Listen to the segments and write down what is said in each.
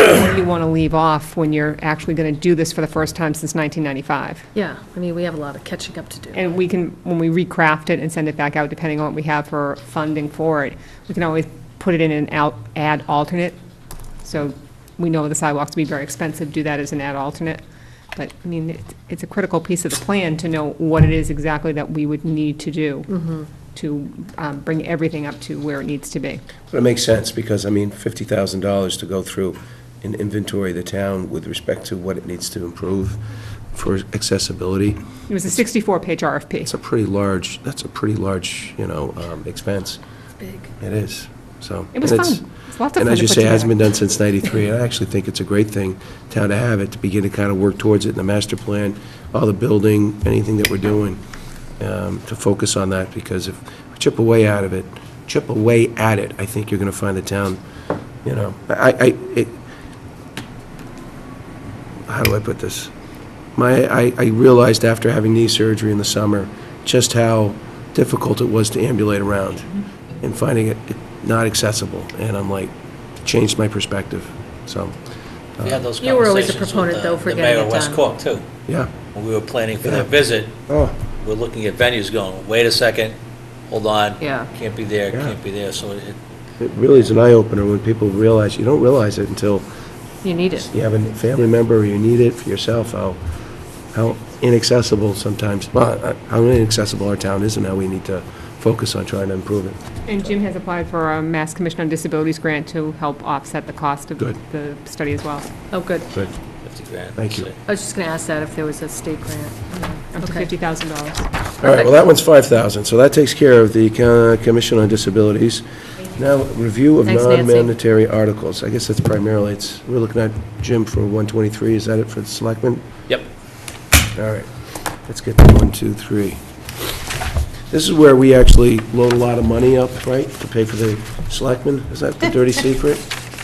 you want to leave off when you're actually going to do this for the first time since 1995. Yeah, I mean, we have a lot of catching up to do. And we can, when we recraft it and send it back out, depending on what we have for funding for it, we can always put it in an out, add alternate. So we know the sidewalks will be very expensive, do that as an add alternate. But, I mean, it- it's a critical piece of the plan to know what it is exactly that we would need to do to um, bring everything up to where it needs to be. But it makes sense, because, I mean, fifty thousand dollars to go through and inventory of the town with respect to what it needs to improve for accessibility, It was a 64-page it's RFP. a pretty large, that's a pretty large, you know, um, expense. Big. It is, so. It was and it's- fun. It's lots of And fun as to you put say, it hasn't together. been done since ninety-three, and I actually think it's a great thing, town to have it, to begin to kind of work towards it in the master plan, all the building, anything that we're doing, um, to focus on that, because if we chip away out of it, chip away at it, I think you're gonna find the town, you know, I, I, it, how do I put this? My, I, I realized after having knee surgery in the summer, just how difficult it was to ambulate around and finding it it not accessible. And I'm like, changed my perspective. So, We had those You were always a conversations with proponent, the- though, for the getting mayor it of West done. Cork, too. yeah. When we were planning for Yeah. that visit, Oh, we're looking at venues going, wait a second, hold on. Yeah. Can't be there, Yeah. can't be there, so it, it really is an eye-opener when people realize, you don't realize it until You need it. you have a family member or you need it for yourself, how, how inaccessible sometimes, well, uh, how inaccessible our town is and how we need to focus on trying to improve it. And Jim has applied for a Mass Commission on Disabilities grant to help offset the cost of Good. the study as well, Oh, good. Good. 50 grand. Thank you. so- I was just going to ask that if there was a state grant. up to Okay. $50,000. All right, well, that one's 5,000, so that takes care of the uh, Commission on Disabilities. Now, review of Thanks, Nancy. non-mandatory articles. I guess that's primarily, it's, we're looking at Jim for 123, is that it for the selectmen? Yep. All right, let's get to one, two, three. This is where we actually load a lot of money up, right, to pay for the selectmen? Is that the dirty secret?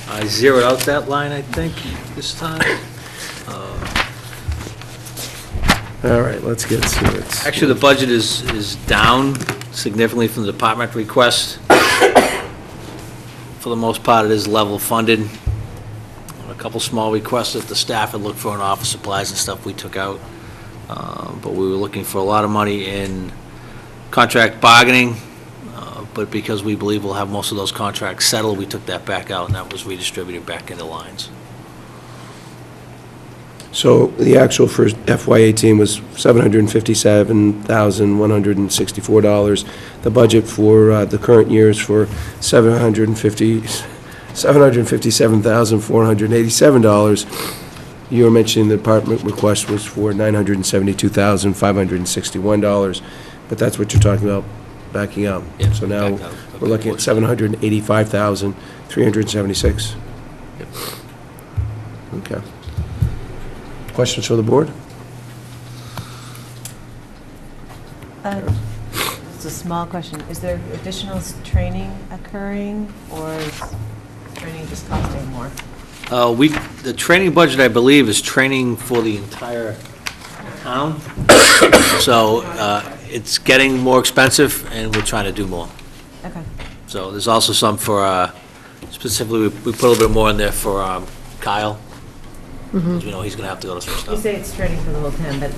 I zeroed out that line, I think, this time. All right, let's get to it. Actually, the budget is, is down significantly from the department request. For the most part, it is level funded. A couple small requests that the staff had looked for in office supplies and stuff we took out. Uh, But we were looking for a lot of money in contract bargaining, uh, but because we believe we'll have most of those contracts settled, we took that back out, and that was redistributed back into lines. So the actual for FY18 was $757,164. The budget for uh, the current year is for 750 $757,487. You were mentioning the department request was for $972,561, but that's what you're talking about backing out. Yeah, So now, back out of we're the looking at portion. 785,376. Okay. Questions for the board? Uh, It's a small question. Is there additional s- training occurring, or is training just costing more? Uh, We, the training budget, I believe, is training for the entire town. So uh, it's getting more expensive, and we're trying to do more. Okay. So there's also some for, uh, specifically, we we put a little bit more in there for um, Kyle, because we know he's going to have to go to some You stuff, say it's training for the whole town, but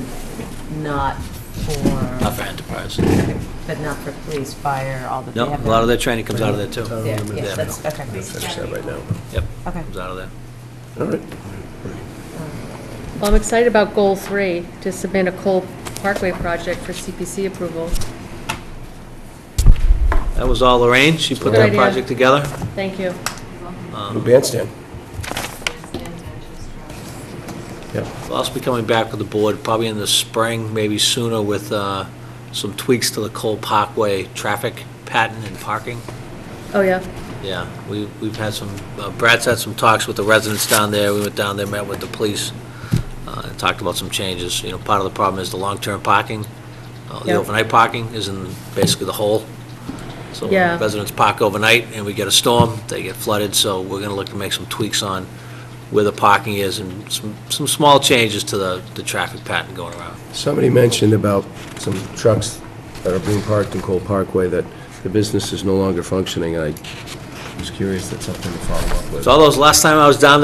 not not for, for enterprise. but not for police, fire, all that they No, have? a lot of their training comes out of there, there? too. Yeah, Yeah. that's, okay. Finish that right now. Yep, Okay. comes out of there. All right. Well, I'm excited about goal three, to submit a coal parkway project for CPC approval. That was all Lorraine, she put Good that idea. project together. Thank you. Um, New bandstand. Yep. We'll also be coming back with the board probably in the spring, maybe sooner with uh, some tweaks to the Cole Parkway traffic pattern and parking. Oh, yeah. Yeah, we- we've had some, uh, Brad's had some talks with the residents down there. We went down there, met with the police, uh, and talked about some changes. You know, part of the problem is the long-term parking. Uh, The Yeah. overnight parking is in basically the hole. So when Yeah. residents park overnight and we get a storm, they get flooded. So we're going to look to make some tweaks on where the parking is and some, some small changes to the, the traffic pattern going around. Somebody mentioned about some trucks that are being parked in Cole Parkway, that the business is no longer functioning. I was curious, that's something to follow up with. So all those, last time I was down